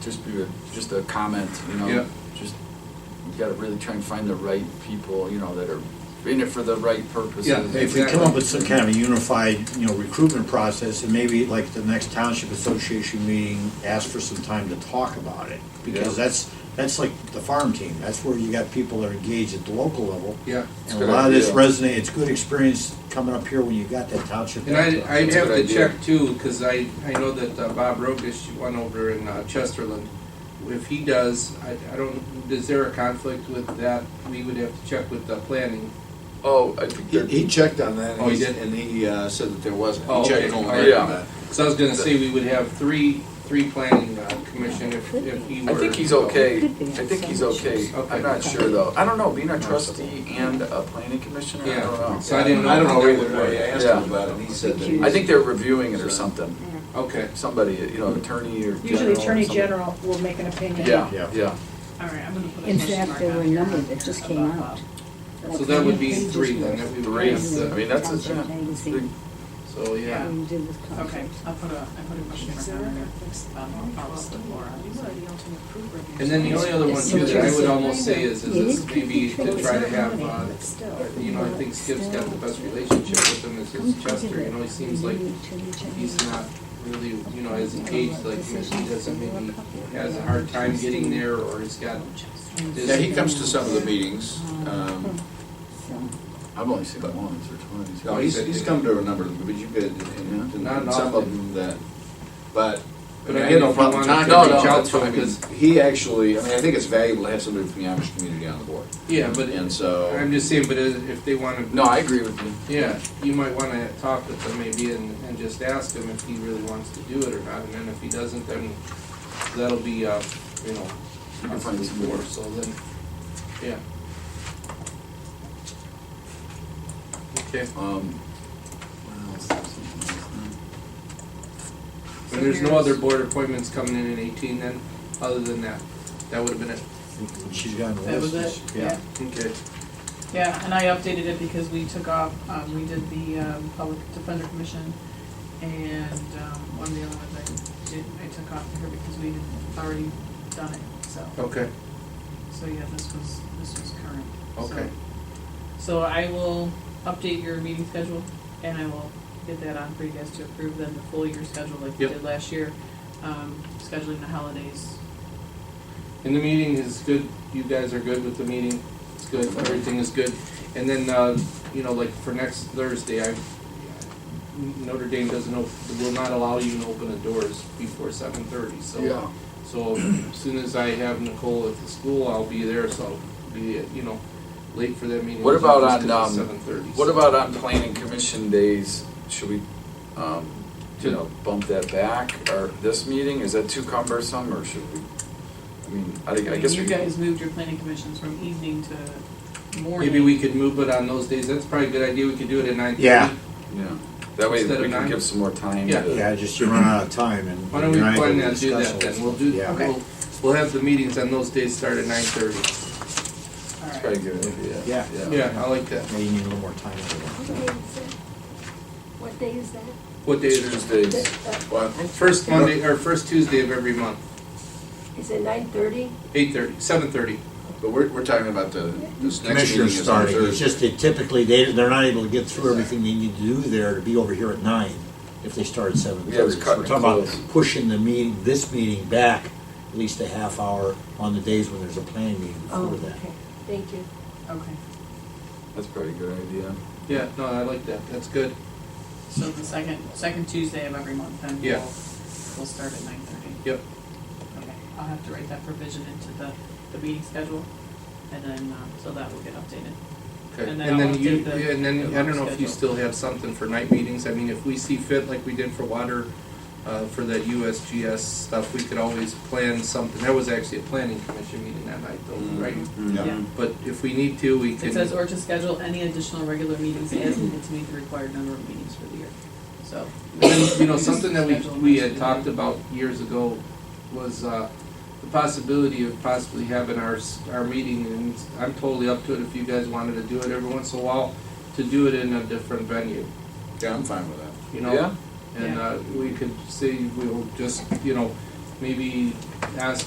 just be, a- just a comment, you Yeah. know? Just, you gotta really try and find the right people, you know, that are in it for the right purposes. Yeah, If we come up with some kind of a unified, you know, recruitment process, and maybe like the next township association meeting, ask for some time to talk about it. Because Yeah. that's, that's like the farm team, that's where you got people that are engaged at the local level. Yeah. It's a And a good lot of this idea. resonates, it's good experience coming up here when you got that township. And I, I'd That's a have good to idea. check too, because I, I know that uh, Bob Rogish won over in uh, Chesterland. If he does, I, I don't, is there a conflict with that? We would have to check with the planning. Oh, I think He, that, he checked on that, Oh, and he he, did? and he uh, said that there wasn't. Oh, He okay. checked on All that. right. Yeah. So I was gonna say, we would have three, three planning uh, commission if, if he were. I think he's okay, Could be on I think he's some okay, issues. I'm not sure though, I don't know, being a trustee and a planning commissioner, I don't Yeah, know. so I didn't know. I don't know how that either would way, I work. asked Yeah. him about it, and he said that. I think they're reviewing it or something, Okay, somebody, you know, attorney or general. Usually or Attorney something. General will make an opinion. Yeah, Yeah. yeah, All right, I'm gonna put a In question fact, mark there on were a here number that just came about out. Bob. so that would be three then, that we would three, have I to, mean, that's, a- Township yeah, magazine. big- so yeah. We did with Okay, contracts. I'll put a, I put a question mark on there. Um, I'll follow up with Laura. And then the only other one too that I would almost say is, is this maybe to try to have, uh, you know, I think Skip's got the best relationship with him is is Chester, you know, he seems like he's not really, you know, as engaged, like, you know, he doesn't maybe has a hard time getting there or he's got his. Yeah, he comes to some of the meetings. Um, So, I've only seen it once or twice. no, Oh, he's, he's come to a number of them, but you've been, and, and Not and some of often. them that, but. But mean, I I had mean, no if problem you wanted talking. to reach out that's to him, fine. I mean, 'cause- He actually, I mean, I think it's valuable to have somebody from the Amish community on the board, Yeah, but and so, I'm just saying, but if if they wanna, No, I agree with you. yeah, you might wanna talk with him maybe and, and just ask him if he really wants to do it or not, and then if he doesn't, then that'll be, uh, you know, You can find some four, more. so then, yeah. Okay, Um, what else? There's something else, no. and there's no other board appointments coming in in eighteen then, other than that, that would've been it. She's got the That was it? list, yeah. Okay. Yeah, and I updated it because we took off, um, we did the, um, Public Defender Commission and, um, one of the other ones I did, I took off here because we had already done it, so. Okay, So yeah, this was, this was current. so- Okay. So I will update your meeting schedule and I will get that on for you guys to approve then the full year schedule like we Yep. did last year. Um, scheduling the holidays. and the meeting is good, you guys are good with the meeting, it's good, everything is good. And then, uh, you know, like for next Thursday, I, Notre Dame doesn't, op- will not allow you to open the doors before seven thirty, so. Yeah. So as soon as I have Nicole at the school, I'll be there, so I'll be, you know, late for that meeting. What about on, um, Seven thirty. What about on planning commission days? Should we, um, you know, bump that back or this meeting? Is that too cumbersome or should we? I mean, I think, I guess You we. guys moved your planning commissions from evening to morning. Maybe we could move it on those days, that's probably a good idea, we could do it at nine thirty. Yeah. Yeah, that way Instead of we can nine? give some more time Yeah. to. Yeah, just you run out of time and. Why don't we you're not plan able to that, do discuss all that this then, we'll do, stuff. Yeah. we'll, we'll have the meetings on those days start at nine thirty. All That's right. probably a good idea. Yeah. Yeah, I like that. Maybe you need a little more time. for that. What day is that? What day is it? Tuesdays, well, First Monday, or first Tuesday of every month, Is it nine thirty? eight thirty, seven thirty. but we're, we're talking about the, this next meeting commissioners is on starting, Thursday. it's just that typically they, they're not able to get through everything they need to do there to be over here at nine if they start at seven Yeah, it's thirty. So cutting we're it talking about close. pushing the meeting, this meeting back at least a half hour on the days when there's a planning meeting Oh, before that. okay, thank you. Okay, that's probably a good idea. Yeah, no, I like that, that's good. so the second, second Tuesday of every month then we'll, Yeah. we'll start at nine thirty. Yep. Okay, I'll have to write that provision into the, the meeting schedule, and then, um, so that will get updated. Okay, And and then I'll then you, update the- yeah, and then, I don't know if you schedule. still have something for night meetings, I mean, if we see fit, like we did for water, uh, for that USGS stuff, we could always plan something, that was actually a planning commission meeting that night though, Mm. right? Yeah. But if we need to, we It says, can, or to schedule any additional regular meetings as needed to meet the required number of meetings for the year, so. And then, you know, something that we, Schedule we next had meeting. talked about years ago was, uh, the possibility of possibly having our, s- our meeting, and I'm totally up to it if you guys wanted to do it every once in a while, to do it in a different venue, Yeah, I'm fine with that. you know? Yeah, And Yeah. uh, we could say we'll just, you know, maybe ask